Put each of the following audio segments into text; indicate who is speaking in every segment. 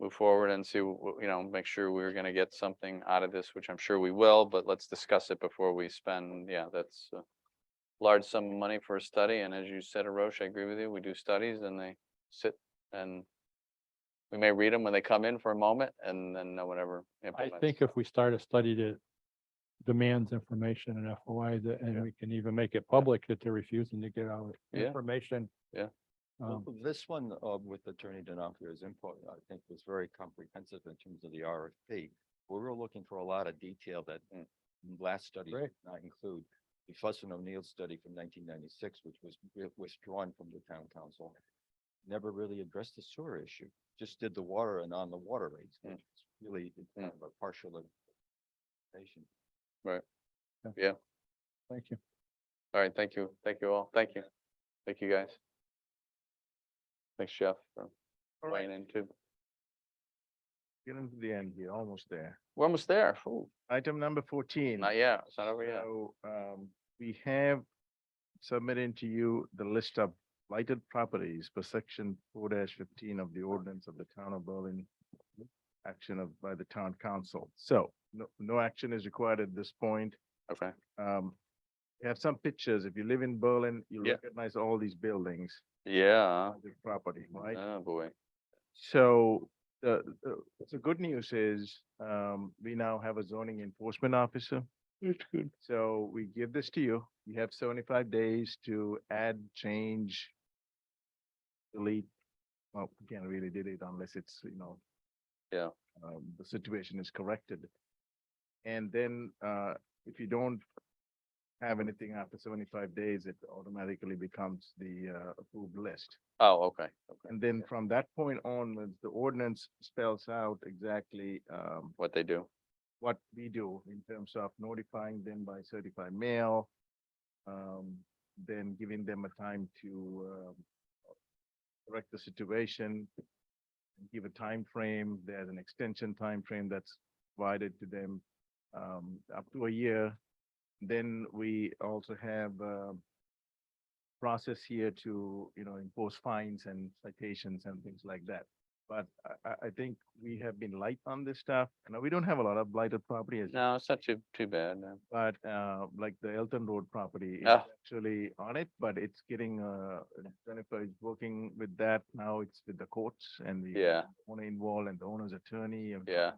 Speaker 1: move forward and see, wh- wh- you know, make sure we're gonna get something out of this, which I'm sure we will, but let's discuss it before we spend, yeah, that's a large sum of money for a study, and as you said, Roche, I agree with you, we do studies and they sit and we may read them when they come in for a moment and then no one ever
Speaker 2: I
Speaker 1: implements.
Speaker 2: think if we start a study that demands information and FOI, that,
Speaker 1: Yeah.
Speaker 2: and we can even make it public that they're refusing to give out
Speaker 1: Yeah.
Speaker 2: information.
Speaker 1: Yeah.
Speaker 3: Well,
Speaker 2: Um,
Speaker 3: This one uh, with Attorney Denofia's input, I think was very comprehensive in terms of the RFP. We were looking for a lot of detail that uh,
Speaker 1: Mm.
Speaker 3: last study
Speaker 2: Right.
Speaker 3: did not include. The Fussin O'Neill study from nineteen ninety-six, which was wi- withdrawn from the town council, never really addressed the sewer issue, just did the water and on the water rates,
Speaker 1: Mm.
Speaker 3: which is really kind of a partial implementation.
Speaker 2: thank you.
Speaker 1: All right, thank you, thank you all, thank you, thank you guys. Thanks, Jeff, for weighing in too.
Speaker 4: Getting to the end here, almost there.
Speaker 1: We're almost there, Ooh,
Speaker 4: Item number fourteen.
Speaker 1: not yet, it's not over yet.
Speaker 4: So, um, we have submitted to you the list of blighted properties per section four fifteen of the ordinance of the town of Berlin. Action of, by the town council. So no, no action is required at this point.
Speaker 1: Okay,
Speaker 4: Um, we have some pictures. If you live in Berlin, you'll
Speaker 1: Yeah.
Speaker 4: recognize all these buildings,
Speaker 1: yeah,
Speaker 4: blighted property, right?
Speaker 1: oh boy,
Speaker 4: So the, the, the good news is, um, we now have a zoning enforcement officer. So we give this to you. You have seventy-five days to add, change, delete. Well, you can't really delete unless it's, you know.
Speaker 1: Yeah.
Speaker 4: Um, the situation is corrected. And then, uh, if you don't have anything after seventy-five days, it automatically becomes the, uh, approved list.
Speaker 1: oh, okay, okay,
Speaker 4: And then from that point onwards, the ordinance spells out exactly, um,
Speaker 1: what they do,
Speaker 4: what we do in terms of notifying them by certified mail. Um, then giving them a time to, um, correct the situation. Give a time frame. there's an extension time frame that's provided to them, um, up to a year. Then we also have, uh, process here to, you know, impose fines and citations and things like that. But I, I, I think we have been light on this stuff. Now, we don't have a lot of blighted property, as-
Speaker 1: no, it's not too, too bad, no.
Speaker 4: but, uh, like the Elton Road property is
Speaker 1: Ah.
Speaker 4: actually on it, but it's getting, uh, Jennifer is working with that. Now it's with the courts and the
Speaker 1: Yeah.
Speaker 4: owner involved and the owner's attorney. and,
Speaker 1: yeah,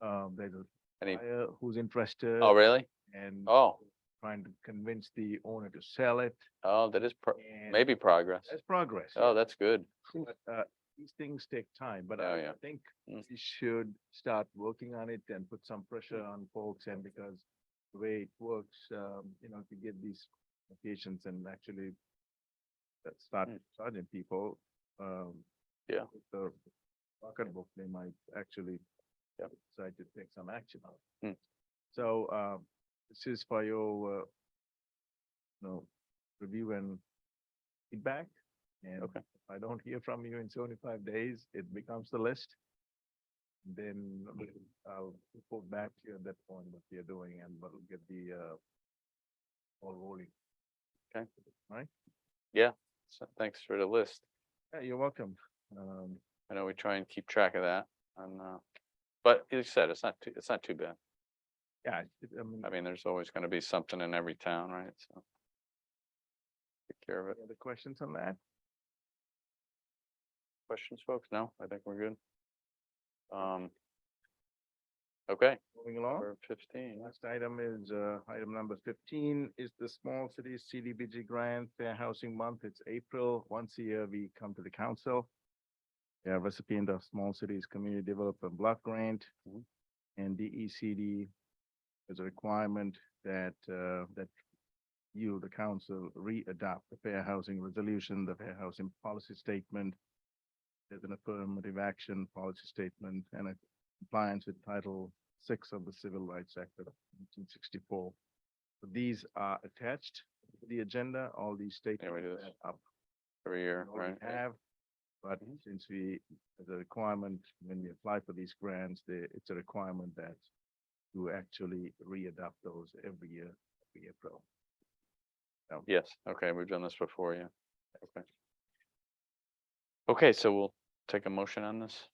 Speaker 4: Um, there's a
Speaker 1: Any-
Speaker 4: buyer who's interested
Speaker 1: oh, really?
Speaker 4: and
Speaker 1: Oh,
Speaker 4: trying to convince the owner to sell it.
Speaker 1: oh, that is pro-
Speaker 4: and
Speaker 1: maybe progress,
Speaker 4: That's progress. yeah.
Speaker 1: oh, that's good,
Speaker 4: But uh, these things take time, but
Speaker 1: Oh,
Speaker 4: I
Speaker 1: yeah.
Speaker 4: I think
Speaker 1: Mm.
Speaker 4: we should start working on it and put some pressure
Speaker 1: Mm.
Speaker 4: on folks and because the way it works, um, you know, to get these applications and actually uh, start
Speaker 1: Mm.
Speaker 4: charging people, um.
Speaker 1: Yeah.
Speaker 4: with The pocketbook, they might actually
Speaker 1: Yep.
Speaker 4: decide to take some action on.
Speaker 1: Mm.
Speaker 4: it. So, um, this is for your, uh, you know, review and feedback. And
Speaker 1: Okay.
Speaker 4: if I don't hear from you in seventy-five days, it becomes the list. Then I'll report back to you at that point what you're doing and we'll get the uh all rolling.
Speaker 1: so thanks for the list.
Speaker 4: Yeah, you're welcome. Um,
Speaker 1: I know we try and keep track of that, and, uh, but like you said, it's not, too it's not too bad,
Speaker 4: yeah, it- I mean,
Speaker 1: I mean, there's always gonna be something in every town, right, so. Take care of it,
Speaker 4: any other questions on that?
Speaker 1: questions, folks, no, I think we're good. Um. Okay,
Speaker 4: Moving along.
Speaker 1: we're fifteen,
Speaker 4: Last item is, uh, item number fifteen is the Small Cities CDBG Grant Fair Housing Month. It's April. Once a year, we come to the council. We are recipient of Small Cities Community Development Block Grant.
Speaker 1: Mhm.
Speaker 4: And DECD is a requirement that, uh, that you, the council, re-adopt the Fair Housing Resolution, the Fair Housing Policy Statement. There's an affirmative action policy statement and a compliance with Title six of the Civil Rights Act of nineteen sixty-four. These are attached to the agenda, all these
Speaker 1: Yeah,
Speaker 4: statements
Speaker 1: we do this.
Speaker 4: are up
Speaker 1: every year,
Speaker 4: we
Speaker 1: right?
Speaker 4: already have. But
Speaker 1: Mhm.
Speaker 4: since we, the requirement, when we apply for these grants, the, it's a requirement that you actually re-adopt those every year, every April.
Speaker 1: Yes, okay, we've done this before, yeah. Okay. Okay, so we'll take a motion on this.